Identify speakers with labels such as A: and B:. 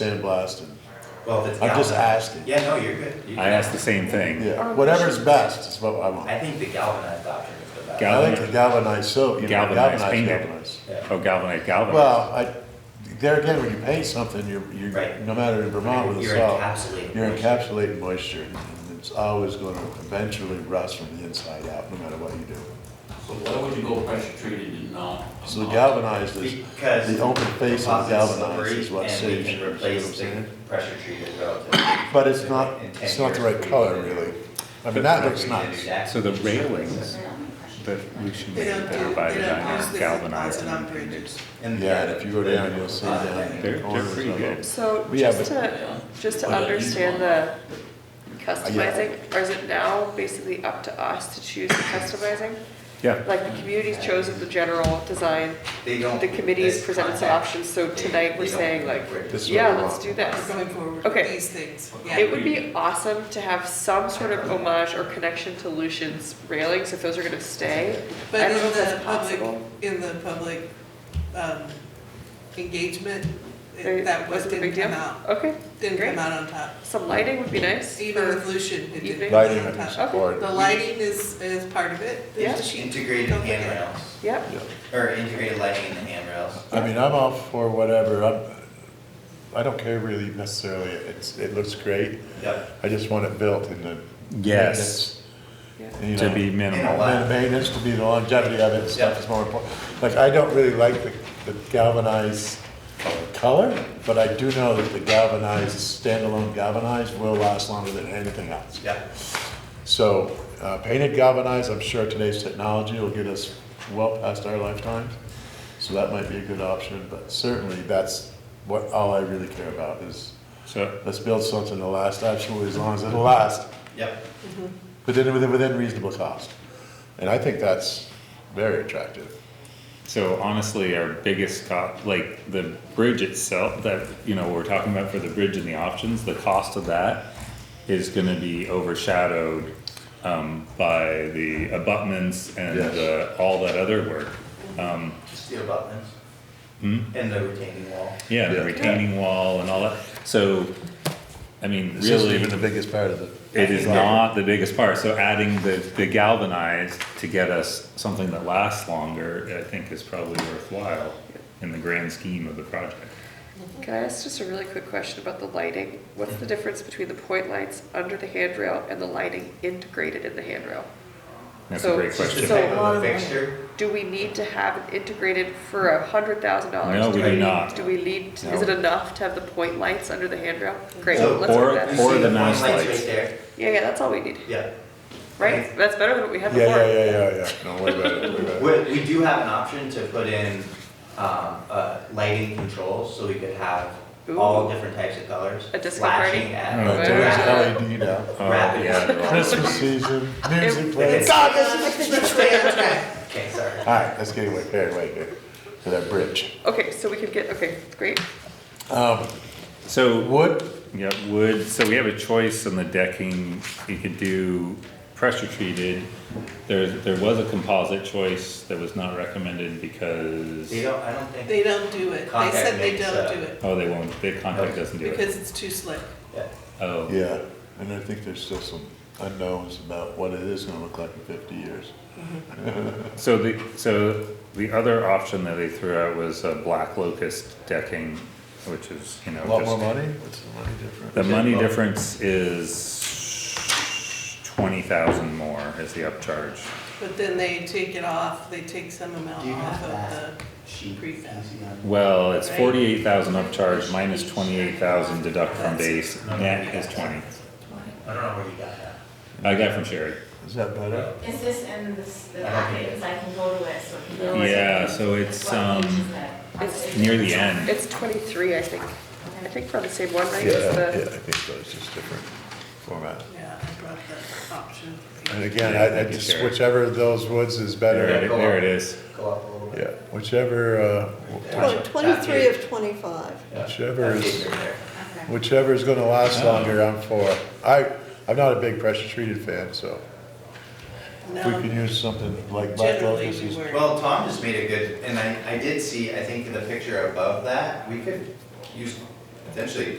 A: sandblast and,
B: Well, if it's.
A: I'm just
B: galvanized-
A: asking.
B: Yeah, no, you're good. You-
C: I asked the same thing.
A: yeah,
D: Or
A: whatever's
D: machines.
A: best is what I want.
B: I think the galvanized option is the best.
C: Gal-
A: I like the galvanized soap, you know,
C: Galvanized,
A: galvanized,
C: painted.
A: galvanized.
B: Yeah.
C: Oh, galvanized, galvanized.
A: Well, I, there again, when you paint something, you're, you're,
B: Right.
A: no matter in Vermont with the
B: You're
A: salt.
B: encapsulating
A: You're
B: moisture.
A: encapsulating moisture, and it's always gonna eventually rust from the inside out, no matter what you do.
E: So why would you go pressure treated and not?
A: So the galvanized is,
B: Because.
A: the open face of the
B: composite's
A: galvanized is
B: slippery,
A: what
B: and we
A: saves
B: can
A: you, you see what I'm
B: replace the
A: saying?
B: Pressure treated relatively.
A: But it's not,
B: In 10
A: it's not the
B: years,
A: right
B: we
A: color,
B: can do-
A: really. I mean,
C: But
A: that
B: we
A: looks
B: can do
A: nice.
B: that.
C: So the railings that Lucian made that are by design are galvanized and painted.
B: And-
A: Yeah, and if you go down, you'll see down. in the
C: Uh, They're- they're
A: corners
C: pretty
A: of
C: good.
A: it.
D: So
A: We
D: just
A: have
D: to, just to
E: Well, that
D: understand the
E: is
D: customizing, or is it now basically up to us to choose the customizing?
C: Yeah,
D: Like the community's chosen the general design,
B: They don't.
D: the committee's
B: this
D: presented some
B: contact,
D: options, so
B: they-
D: tonight we're
B: they don't
D: saying like,
B: incorporate
A: This is what
D: yeah,
A: we
D: let's
A: want.
D: do
F: We're
D: this.
F: going forward
D: Okay.
F: with these things,
D: It
F: yeah.
D: would be awesome to have some sort of homage or connection to Lucian's railings, if those are gonna stay. I
F: But
D: don't know
F: in
D: if that's
F: the public,
D: possible.
F: in the public um, engagement,
D: They-
F: it- that was,
D: wasn't a
F: didn't
D: big deal.
F: come out,
D: Okay,
F: didn't
D: Great.
F: come out on top.
D: some lighting would be nice.
F: Even
D: for-
F: with Lucian,
D: evening.
F: it didn't come
A: Lighting
F: out
A: and
F: on top.
A: support.
F: The lighting is, is part of it.
D: Yeah.
F: There's the
B: Integrated
F: Don't forget.
B: handrails,
D: Yep,
A: Yeah.
B: or integrated lighting in the handrails.
A: I mean, I'm all for whatever, I'm, I don't care really necessarily, it's, it looks great,
B: Yep.
A: I just want it built in the.
C: Yes.
D: yeah.
A: maintenance, you
C: to be
A: know.
C: minimal.
A: Ma- Maintenance to be the longevity of it, and stuff is more important, like, I don't really like the the galvanized color, but I do know that the galvanized, standalone galvanized will last longer than anything else.
B: Yep.
A: So uh, painted galvanized, I'm sure today's technology will get us well past our lifetimes. So that might be a good option, but certainly that's what, all I really care about is
C: So,
A: let's build something that'll last absolutely as long as it'll last,
B: Yep.
A: within, within, within reasonable cost. And I think that's very attractive.
C: so honestly, our biggest cost, like the bridge itself, that, you know, we're talking about for the bridge and the options, the cost of that is gonna be overshadowed, um, by the abutments and
A: Yes.
C: the, all that other work. Um,
B: Just the abutments
C: hmm?
B: and the retaining wall.
C: Yeah,
A: Yeah.
C: the retaining wall and all that. So, I mean,
A: This isn't
C: really,
A: even the biggest part of the.
C: it is not the biggest part. So adding the, the galvanized to get us something that lasts longer, I think is probably worthwhile in the grand scheme of the project.
D: Can I ask just a really quick question about the lighting? What's the difference between the point lights under the handrail and the lighting integrated in the handrail?
C: That's a
D: So-
C: great
B: Just the
C: question.
D: So-
B: type of the fixture,
D: Do we need to have it integrated for a hundred thousand dollars?
C: No, we do not.
D: Do we need,
C: No.
D: is it enough to have the point lights under the handrail? Great,
B: So-
D: let's work
B: you
D: that.
C: Or
B: see
C: the
B: the
C: mouse
B: point lights
C: lights.
B: right there,
D: Yeah, yeah, that's all we need,
B: yeah.
D: right? That's better than what we had
A: Yeah, yeah,
D: before.
A: yeah, yeah, yeah, no, way better, way better.
B: We, we do have an option to put in, um, uh, lighting controls, so we could have all
D: Ooh.
B: different types of colors.
D: A disco party?
B: Flashing
A: I don't know,
B: at.
D: Wow.
A: today's LED E now.
C: Oh,
B: Rapid.
C: yeah, they're all-
A: Christmas season, music
D: It-
A: plays.
B: God,
F: Okay.
B: Okay, sorry.
A: All right, let's get away, wait, wait, wait, to that bridge.
D: Okay, so we could get, okay, great.
A: Um,
C: So,
A: wood,
C: yeah, wood, so we have a choice on the decking. You could do pressure treated. There, there was a composite choice that was not recommended because,
B: They don't, I don't think.
F: They don't do it. They
B: Contact
F: said they
B: makes,
F: don't
B: uh,
F: do it
C: oh, they won't, the contract doesn't do it.
F: because it's too slick.
B: Yeah.
C: Oh.
A: yeah, and I think there's still some unknowns about what it is gonna look like in fifty years.
C: So the, so the other option that they threw out was a black locust decking, which is, you know,
A: A lot
C: just-
A: more money, what's the money
C: The
A: difference?
C: money difference is twenty thousand more is the upcharge.
F: But then they take it off, they take some amount
B: Do you
F: off
B: have
F: of
B: that?
F: the,
B: Sheet.
F: Prefab.
B: Easy on-
C: Well, it's
F: Right.
C: forty-eight thousand upcharge minus twenty-eight thousand deduct from
F: That's-
C: base, net is twenty.
B: I don't know where you got that.
C: I got from Sherry.
A: Is that better?
G: Is this in this, the package, I can go to it, so. we can-
C: Yeah, so it's,
G: What page is
C: um,
G: that?
D: It's-
C: near the end.
D: It's twenty-three, I think. I think we're on the same one, right?
A: Yeah,
D: It's the-
A: yeah, I think so, it's just different format.
F: yeah, I brought that option.
A: And again, I, I just, whichever of those woods is
C: There
A: better,
C: it, there it is.
B: Go up a little bit.
A: yeah, whichever, uh,
B: Well, 23 of
F: twenty-five.
B: Yeah.
A: Whichever
B: That's
A: is-
B: it right there.
G: Okay.
A: whichever is gonna last longer, I'm for. I, I'm not a big pressure treated fan, so if we could
F: No,
A: use something like black
F: generally
A: locust
F: we
A: is
F: were.
B: Well, Tom just made a good, and I, I did see, I think in the picture above that, we could use potentially